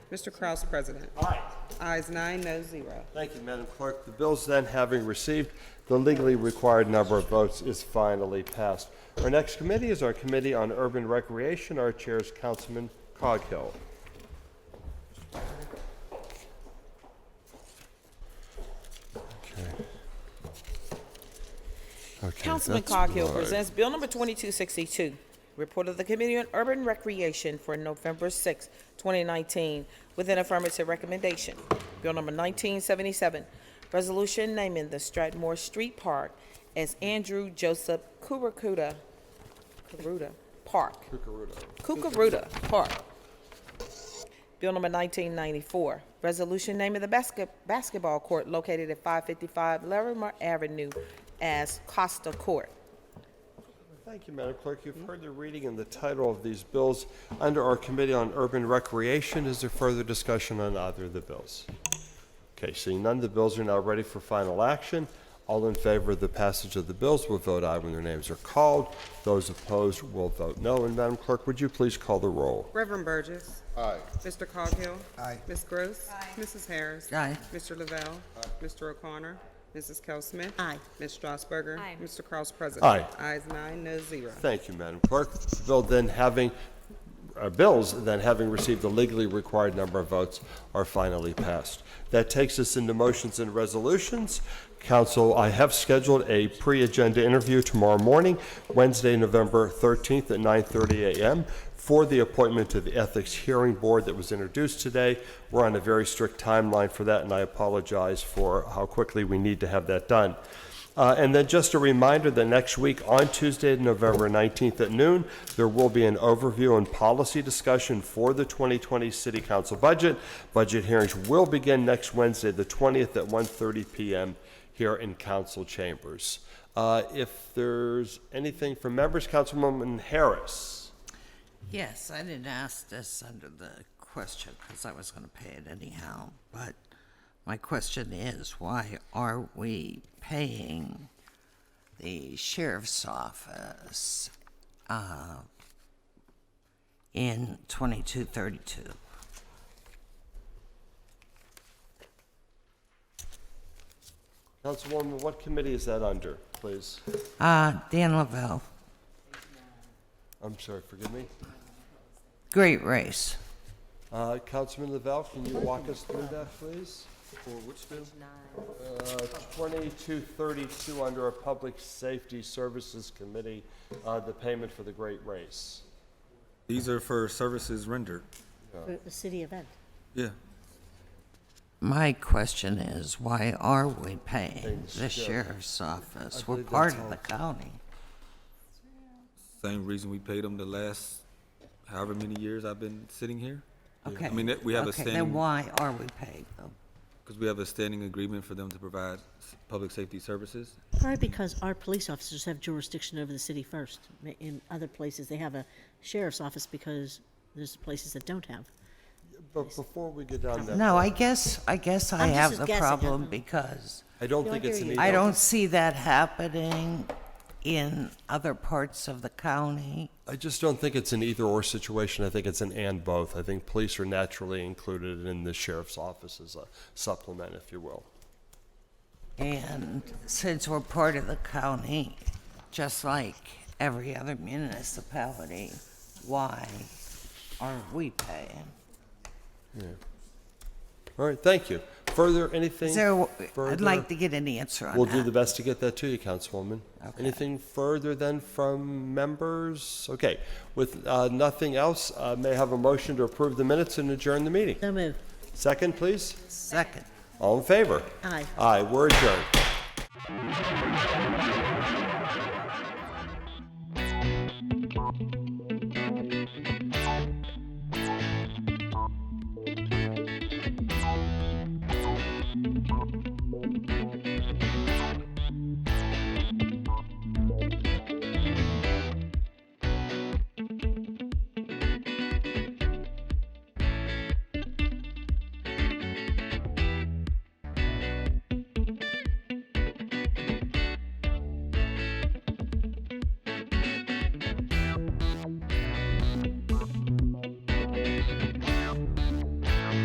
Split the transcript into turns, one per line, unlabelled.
Mr. Kraus, President.
Aye.
Ayes nine, no zero.
Thank you, Madam Clerk. The bills then, having received the legally required number of votes, is finally passed. Our next committee is our Committee on Urban Recreation. Our chair is Councilman Coghill. Okay. Okay,
Councilman
that's
Coghill
right.
presents Bill Number 2262, Report of the Committee on Urban Recreation for November 6, 2019, with an affirmative recommendation. Bill Number 1977, Resolution naming the Stratmore Street Park as Andrew Joseph Kurukuda, Kuruda Park. Kukuruda Park. Bill number 1994, resolution naming the basket, basketball court located at 555 Larimer Avenue as Costa Court.
Thank you, Madam Clerk. You've heard the reading and the title of these bills under our Committee on Urban Recreation. Is there further discussion on either of the bills? Okay, seeing none, the bills are now ready for final action. All in favor of the passage of the bills will vote aye when their names are called. Those opposed will vote no. And Madam Clerk, would you please call the roll?
Reverend Burgess.
Aye.
Mr. Coghill.
Aye.
Ms. Gross. Mrs. Harris.
Aye.
Mr. Lavelle. Mr. O'Connor. Mrs. Kell Smith. Aye. Ms. Strasburger.
Aye.
Mr. Kraus, President.
Aye.
Ayes nine, no zero.
Thank you, Madam Clerk. The Bill then having, uh, bills then having received the legally required number of votes are finally passed. That takes us into motions and resolutions. Council, I have scheduled a pre-agenda interview tomorrow morning, Wednesday, November 13th at 9:30 a.m. for the appointment to the Ethics Hearing Board that was introduced today. We're on a very strict timeline for that, and I apologize for how quickly we need to have that done. Uh, And then just a reminder that next week, on Tuesday, November 19th at noon, there will be an overview and policy discussion for the 2020 City Council budget. Budget hearings will begin next Wednesday, the 20th, at 1:30 PM here in council chambers. Uh, If there's anything from members, Councilwoman Harris.
Yes, I didn't ask this under the question because I was going to pay it anyhow. But my question is why are we paying the sheriff's office uh, in 2232?
Councilwoman, what committee is that under, please?
Uh, Dan Lavelle,
I'm sorry, forgive me.
great race.
Uh, Councilman Lavelle, can you walk us through that, please?
For which bill?
Uh, 2232 under a Public Safety Services Committee, uh, the payment for the Great Race.
These are for services rendered.
For uh, the city event.
Yeah.
My question is why are we paying
Thanks,
the
Sheriff.
sheriff's office? We're
believe
part
that's
of the county.
Same reason we paid them the last however many years I've been sitting here.
Okay.
I mean, that- we have a
Okay, then
standing-
why are we paying them?
Because we have a standing agreement for them to provide s- public safety services.
Probably because our police officers have jurisdiction over the city first. Ma- In other places, they have a sheriff's office because there's places that don't have.
But before we get down that,
No, I guess, I guess I
I'm just
have
as
the
guessing, I don't
problem
know.
because
I don't
No, I
think it's
hear
an
you.
either.
I don't see that happening in other parts of the county.
I just don't think it's an either-or situation. I think it's an and both. I think police are naturally included in the sheriff's office as a supplement, if you will.
And since we're part of the county, just like every other municipality, why are we paying?
All right, thank you. Further, anything?
Is there, I'd
further?
like to get an answer on
We'll do the
that.
best to get that to you, Councilwoman.
Okay.
Anything further then from members? Okay, with uh, nothing else, uh, may I have a motion to approve the minutes and adjourn the meeting?
So move.
Second, please?
Second.
All in favor?
Aye.
Aye, we're adjourned.